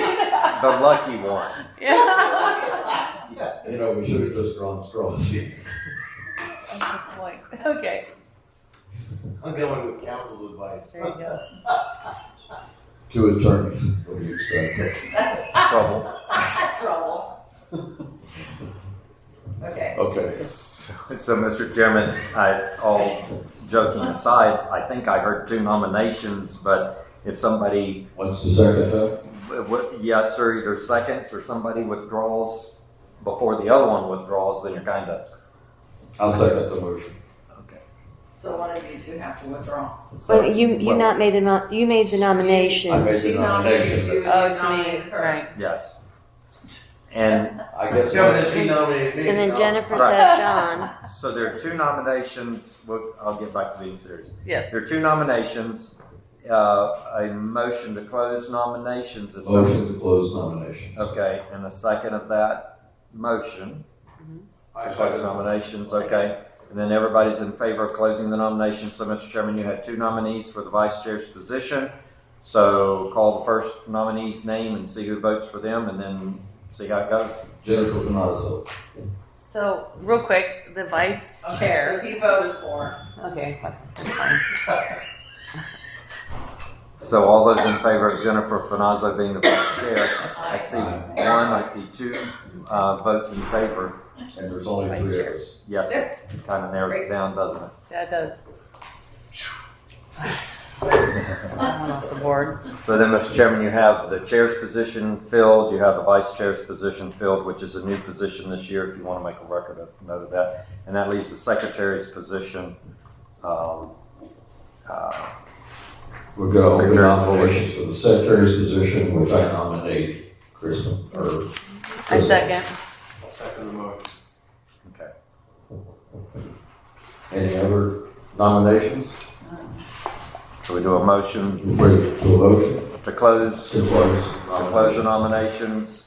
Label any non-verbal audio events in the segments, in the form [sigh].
the lucky one. [laughs] You know, we should have just drawn straws. [laughs] Like, okay, I'm going with counsel's advice. there you go. Two attorneys, what do you expect? [laughs] Trouble. Trouble. Okay. Okay. So, so, Mr. Chairman, I, all joking aside, I think I heard two nominations, but if somebody, What's the second vote? w- w- yes, or either seconds or somebody withdraws before the other one withdraws, then you're kind of, I'll second the motion. okay. So one of you two have to withdraw. So- Well, you, you well, not made the, nom- you made the I nomination. made the She nomination. nominated you, Oh, you it's me, nominated her. right. Yes. And I guess. Yeah, but then she nominated me. And then Jennifer Right. said John. so there are two nominations, We'll- I'll get back to being serious. Yes. There are two nominations, uh, a motion to close nominations. if some- Motion to close nominations. Okay, and a second of that motion, I to close second. nominations, okay. And then everybody's in favor of closing the nominations, so Mr. Chairman, you had two nominees for the vice chair's position. So call the first nominee's name and see who votes for them, and then see how it goes. Jennifer Finazzo. So, real quick, the vice Okay, chair. so he voted for. her. Okay, that's fine. So all those in favor of Jennifer Finazzo being the vice chair, I see Aye. one, I see two, uh, votes in favor. And there's only three of us. Yes, it kind of narrows it down, doesn't it? That does. [laughs] I'm off the board. So then, Mr. Chairman, you have the chair's position filled, you have the vice chair's position filled, which is a new position this year, if you want to make a record of, note of that. And that leaves the secretary's position. um, uh, We've got open Secretary. nominations for the secretary's position, which I nominate Kristen, or. I second. I'll second the motion. Okay. Any other nominations? So we do a motion Ready to a motion to close, to to close. close the nominations,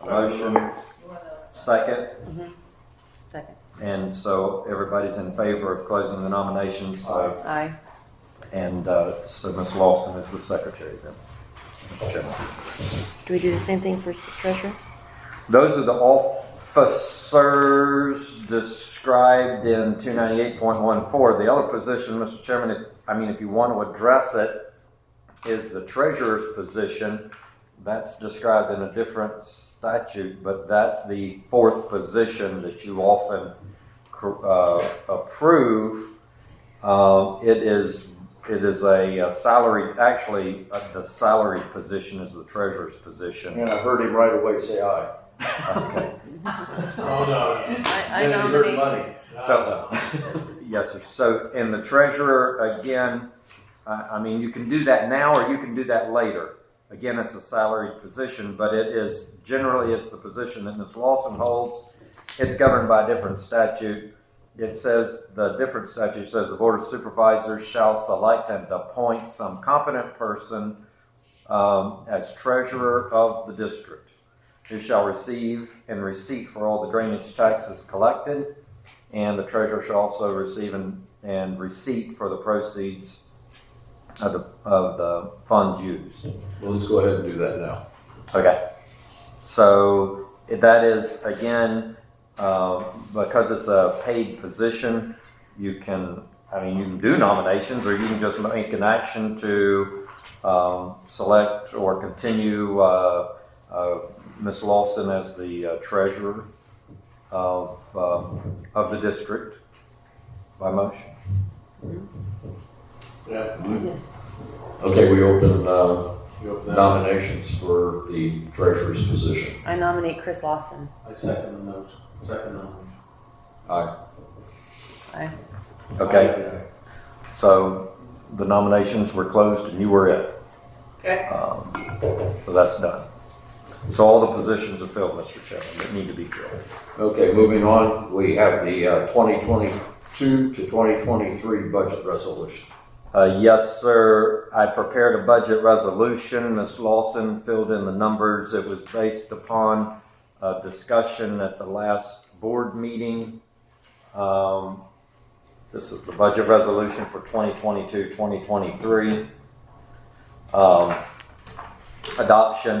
a motion, You wanna- second. Second. And so everybody's in favor of closing the nominations, so, Aye. and uh, so Ms. Lawson is the secretary then. Mr. Chairman. Do we do the same thing for s- treasurer? Those are the officers described in two ninety eight point one four. The other position, Mr. Chairman, if, I mean, if you want to address it, is the treasurer's position. That's described in a different statute, but that's the fourth position that you often cr- uh, approve. Uh, it is it is a, uh salary. Actually, uh, the salary position is the treasurer's position. [laughs] And I heard him right away say aye. Okay. Oh, no. I, I Then you heard nominate. money. So, yes, sir. So, and the treasurer, again, I, I mean, you can do that now or you can do that later. Again, it's a salaried position, but it is, generally, it's the position that Ms. Lawson holds. It's governed by a different statute. It says, the different statute says the Board of Supervisors shall select and appoint some competent person um, as treasurer of the district, who shall receive and receipt for all the drainage taxes collected, and the treasurer shall also receive and, and receipt for the proceeds of the, of the funds used. Well, let's go ahead and do that now. Okay. So that is, again, uh, because it's a paid position, you can, I mean, you can do nominations or you can just make an action to um, select or continue uh, uh, Ms. Lawson as the uh, treasurer of, um of the district by motion. Yeah, Okay, we open, uh, you open that. nominations for the treasurer's position. I nominate Chris Lawson. I second the motion. Second the motion. Aye. Aye. Okay, Aye, so the nominations were closed and you were it. Okay. Um, So that's done. So all the positions are filled, Mr. Chairman, that need to be filled. Okay, moving on, we have the, uh, twenty twenty-two to twenty twenty-three budget resolution. Uh, Yes, sir, I prepared a budget resolution. Ms. Lawson filled in the numbers. It was based upon a discussion at the last board meeting. Um, This is the budget resolution for 2022, 2023. Um, Adoption